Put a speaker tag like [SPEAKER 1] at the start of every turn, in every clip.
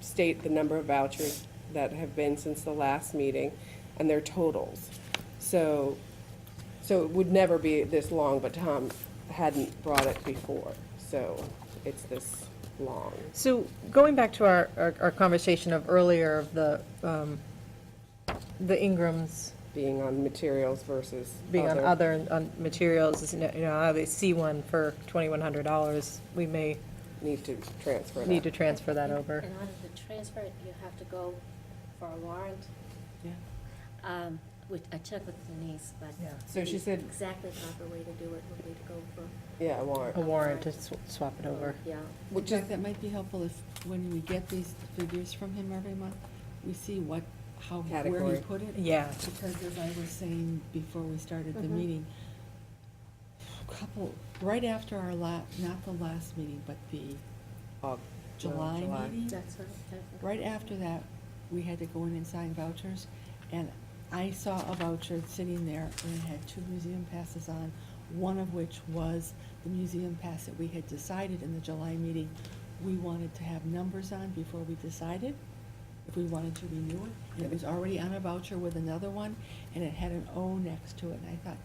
[SPEAKER 1] state the number of vouchers that have been since the last meeting and their totals. So, so it would never be this long, but Tom hadn't brought it before, so it's this long.
[SPEAKER 2] So going back to our, our- our conversation of earlier of the, um, the Ingrams
[SPEAKER 1] being on materials versus.
[SPEAKER 2] being on other, on materials, is, you know, you know, how they see one for $2,100, we may
[SPEAKER 1] Need to transfer that.
[SPEAKER 2] need to transfer that over.
[SPEAKER 3] In order to transfer it, you have to go for a warrant,
[SPEAKER 1] Yeah.
[SPEAKER 3] um, which I checked with Denise, but.
[SPEAKER 2] Yeah.
[SPEAKER 1] So she
[SPEAKER 3] the
[SPEAKER 1] said-
[SPEAKER 3] Exactly proper way to do it would be to go for.
[SPEAKER 1] Yeah, a
[SPEAKER 2] A
[SPEAKER 1] warrant,
[SPEAKER 2] warrant to sw- swap it over.
[SPEAKER 3] Yeah.
[SPEAKER 4] In
[SPEAKER 1] which is,
[SPEAKER 4] fact, that might be helpful if, when we get these figures from him every month, we see what, how, where
[SPEAKER 1] Category.
[SPEAKER 4] he put it.
[SPEAKER 2] Yeah.
[SPEAKER 4] Because as I was saying before we started the
[SPEAKER 3] Mhm.
[SPEAKER 4] meeting, a couple, right after our la, not the last meeting, but the
[SPEAKER 1] uh,
[SPEAKER 4] July
[SPEAKER 1] July.
[SPEAKER 4] meeting.
[SPEAKER 3] That's what. that's what-
[SPEAKER 4] Right after that, we had to go in and sign vouchers, and I saw a voucher sitting there, and it had two museum passes on, one of which was the museum pass that we had decided in the July meeting we wanted to have numbers on before we decided if we wanted to renew it. And it was already on a voucher with another one, and it had an O next to it, and I thought,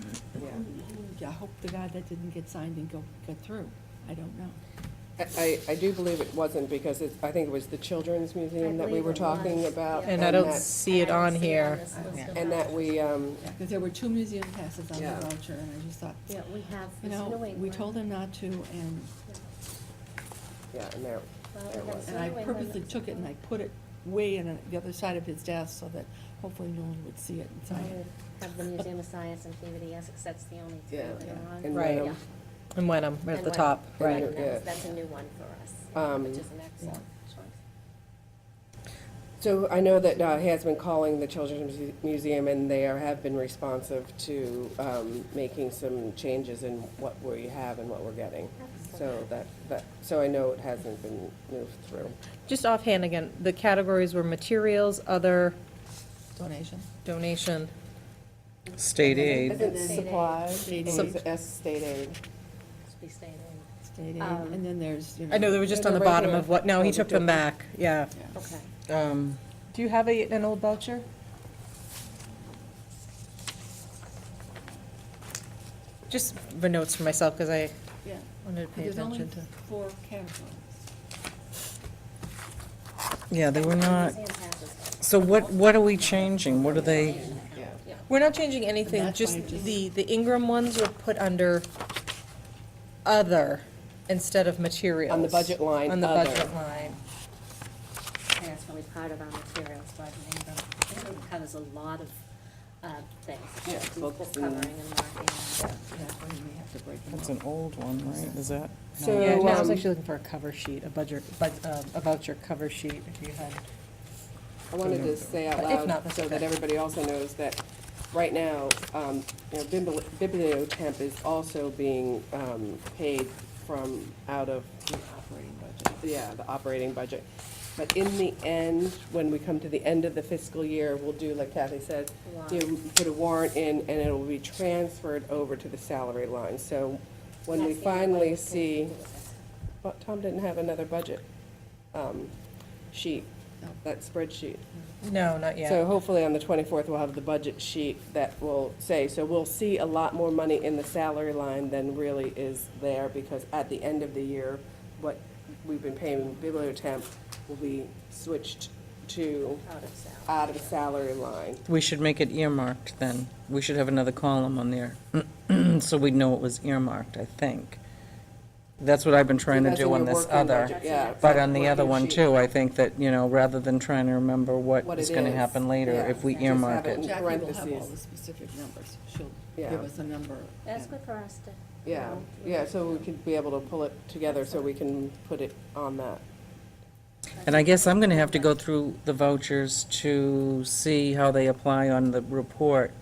[SPEAKER 4] "Hmm,
[SPEAKER 1] yeah.
[SPEAKER 4] I hope to God that didn't get signed and go, get through. I don't know.
[SPEAKER 1] I, I I do believe it wasn't because it's, I think it was the Children's Museum that we
[SPEAKER 3] believe
[SPEAKER 1] were
[SPEAKER 3] it
[SPEAKER 1] talking
[SPEAKER 3] was,
[SPEAKER 1] about.
[SPEAKER 3] yeah.
[SPEAKER 2] And I don't
[SPEAKER 1] that-
[SPEAKER 2] see it
[SPEAKER 3] I don't
[SPEAKER 2] on
[SPEAKER 3] see
[SPEAKER 2] here.
[SPEAKER 3] this list
[SPEAKER 4] Yeah.
[SPEAKER 3] of
[SPEAKER 1] And that
[SPEAKER 3] vouchers.
[SPEAKER 1] we, um,
[SPEAKER 4] Yeah, because there were two museum passes on the
[SPEAKER 1] Yeah.
[SPEAKER 4] voucher, and I just thought,
[SPEAKER 3] Yeah, we have
[SPEAKER 4] You
[SPEAKER 3] this New
[SPEAKER 4] know,
[SPEAKER 3] England.
[SPEAKER 4] we told them not to, and,
[SPEAKER 3] Yeah.
[SPEAKER 1] yeah, and there, there
[SPEAKER 3] Well, we have
[SPEAKER 1] was.
[SPEAKER 3] some-
[SPEAKER 4] and I
[SPEAKER 3] New England
[SPEAKER 4] purposely
[SPEAKER 3] is-
[SPEAKER 4] took it and I put it way on the other side of his desk so that hopefully no one would see it and
[SPEAKER 3] I
[SPEAKER 4] sign it.
[SPEAKER 3] would Have the Museum of Science and PVD Essex, that's the only two
[SPEAKER 1] Yeah,
[SPEAKER 3] that
[SPEAKER 4] yeah.
[SPEAKER 3] are on.
[SPEAKER 1] And um,
[SPEAKER 2] Right.
[SPEAKER 3] Yeah.
[SPEAKER 1] Wenham.
[SPEAKER 2] And Wenham, we're at
[SPEAKER 3] And
[SPEAKER 2] the
[SPEAKER 3] Wenham.
[SPEAKER 2] top,
[SPEAKER 1] Right.
[SPEAKER 3] And
[SPEAKER 2] right.
[SPEAKER 3] that's,
[SPEAKER 1] Yeah.
[SPEAKER 3] that's a new one for us,
[SPEAKER 1] Um,
[SPEAKER 3] which is an excellent choice.
[SPEAKER 1] So I know that uh, he has been calling the Children's Muse- Museum, and they are, have been responsive to um, making some changes in what we have and what we're getting. So that, that, so I know it hasn't been moved through.
[SPEAKER 2] Just offhand again, the categories were materials, other,
[SPEAKER 4] Donation?
[SPEAKER 2] donation,
[SPEAKER 5] State aid,
[SPEAKER 3] Isn't State aid. supplies?
[SPEAKER 1] State
[SPEAKER 4] State aid.
[SPEAKER 1] S state aid.
[SPEAKER 3] Should be staying in.
[SPEAKER 4] State aid,
[SPEAKER 3] Um,
[SPEAKER 4] and then there's, you know.
[SPEAKER 2] I know they were just on the
[SPEAKER 1] The
[SPEAKER 2] bottom
[SPEAKER 1] regular-
[SPEAKER 2] of what, no, he
[SPEAKER 1] Oh, the
[SPEAKER 2] took them
[SPEAKER 1] different-
[SPEAKER 2] back, yeah.
[SPEAKER 4] yeah.
[SPEAKER 3] Okay.
[SPEAKER 5] um,
[SPEAKER 2] Do you have a, an old voucher? Just the notes for myself, because I
[SPEAKER 4] Yeah.
[SPEAKER 2] wanted to pay
[SPEAKER 4] There's only
[SPEAKER 2] attention to.
[SPEAKER 4] four categories.
[SPEAKER 5] yeah, they were not,
[SPEAKER 3] Museum passes.
[SPEAKER 5] so what, what are we changing? What are they,
[SPEAKER 1] Yeah.
[SPEAKER 2] We're not changing anything,
[SPEAKER 4] that's
[SPEAKER 2] just
[SPEAKER 4] why I just-
[SPEAKER 2] the, the Ingram ones were put under other instead of materials.
[SPEAKER 1] budget line,
[SPEAKER 2] On the
[SPEAKER 1] other.
[SPEAKER 2] budget line.
[SPEAKER 3] And that's really part of our materials, but Ingram, Ingram covers a lot of uh, things.
[SPEAKER 1] Yeah,
[SPEAKER 3] People
[SPEAKER 1] books
[SPEAKER 3] Covering
[SPEAKER 1] and-
[SPEAKER 3] and marking.
[SPEAKER 4] That's why you may have to break them
[SPEAKER 5] that's
[SPEAKER 4] up.
[SPEAKER 5] an old one, right? Is that? no.
[SPEAKER 1] So,
[SPEAKER 2] Yeah, no, I was
[SPEAKER 1] um,
[SPEAKER 2] actually looking for a cover sheet, a budget, bud- um, a voucher cover sheet, if you had.
[SPEAKER 1] I wanted to say out
[SPEAKER 2] But if not,
[SPEAKER 1] loud,
[SPEAKER 2] that's
[SPEAKER 1] so that
[SPEAKER 2] okay.
[SPEAKER 1] everybody also knows that, right now, um, you know, Bibli- Bibliotemp is also being, um, paid from out of
[SPEAKER 4] Operating budget.
[SPEAKER 1] yeah, the operating budget. But in the end, when we come to the end of the fiscal year, we'll do, like Kathy said,
[SPEAKER 3] Warrant.
[SPEAKER 1] do, put a warrant in, and it'll be transferred over to the salary line. So when we
[SPEAKER 3] That's the only way we
[SPEAKER 1] finally
[SPEAKER 3] can
[SPEAKER 1] see,
[SPEAKER 3] do it.
[SPEAKER 1] but Tom didn't have another budget um, sheet, that spreadsheet.
[SPEAKER 2] No, not yet.
[SPEAKER 1] So hopefully on the 24th, we'll have the budget sheet that will say, so we'll see a lot more money in the salary line than really is there, because at the end of the year, what we've been paying bibliotemp will be switched to
[SPEAKER 3] Out of salary.
[SPEAKER 1] out of salary line.
[SPEAKER 5] We should make it earmarked then. We should have another column on there, so we'd know it was earmarked, I think. That's what I've been trying to
[SPEAKER 1] That's
[SPEAKER 5] do
[SPEAKER 1] in
[SPEAKER 5] on
[SPEAKER 1] your
[SPEAKER 5] this
[SPEAKER 1] working
[SPEAKER 5] other.
[SPEAKER 1] budget, yeah.
[SPEAKER 5] But on the other
[SPEAKER 1] Working
[SPEAKER 5] one
[SPEAKER 1] sheet.
[SPEAKER 5] too, I think that, you know, rather than trying to remember
[SPEAKER 1] What
[SPEAKER 5] what is
[SPEAKER 1] it
[SPEAKER 5] gonna
[SPEAKER 1] is,
[SPEAKER 5] happen later,
[SPEAKER 1] yeah.
[SPEAKER 5] if we
[SPEAKER 1] Just have
[SPEAKER 5] earmark
[SPEAKER 1] it.
[SPEAKER 5] it.
[SPEAKER 4] Jackie will have all
[SPEAKER 1] parentheses.
[SPEAKER 4] the specific numbers. She'll
[SPEAKER 1] Yeah.
[SPEAKER 4] give us a number.
[SPEAKER 3] That's
[SPEAKER 4] and-
[SPEAKER 3] good for us to. you
[SPEAKER 1] Yeah,
[SPEAKER 3] know,
[SPEAKER 1] yeah, so we could be able to pull it together, so we can put it on that.
[SPEAKER 5] And I guess I'm gonna have to go through the vouchers to see how they apply on the report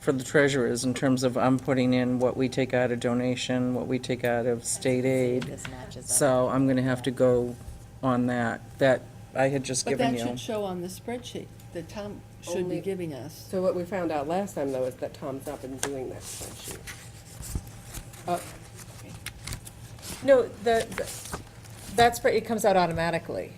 [SPEAKER 5] for the treasurers in terms of I'm putting in what we take out of donation, what we take out of state aid. So I'm gonna have to go on that, that I had just
[SPEAKER 4] But
[SPEAKER 5] given
[SPEAKER 4] that
[SPEAKER 5] you.
[SPEAKER 4] should show on the spreadsheet that Tom should
[SPEAKER 1] Only-
[SPEAKER 4] be giving us.
[SPEAKER 1] So what we found out last time, though, is that Tom's not been doing that spreadsheet. Uh,
[SPEAKER 2] No, the, the- that's, pre- it comes out automatically.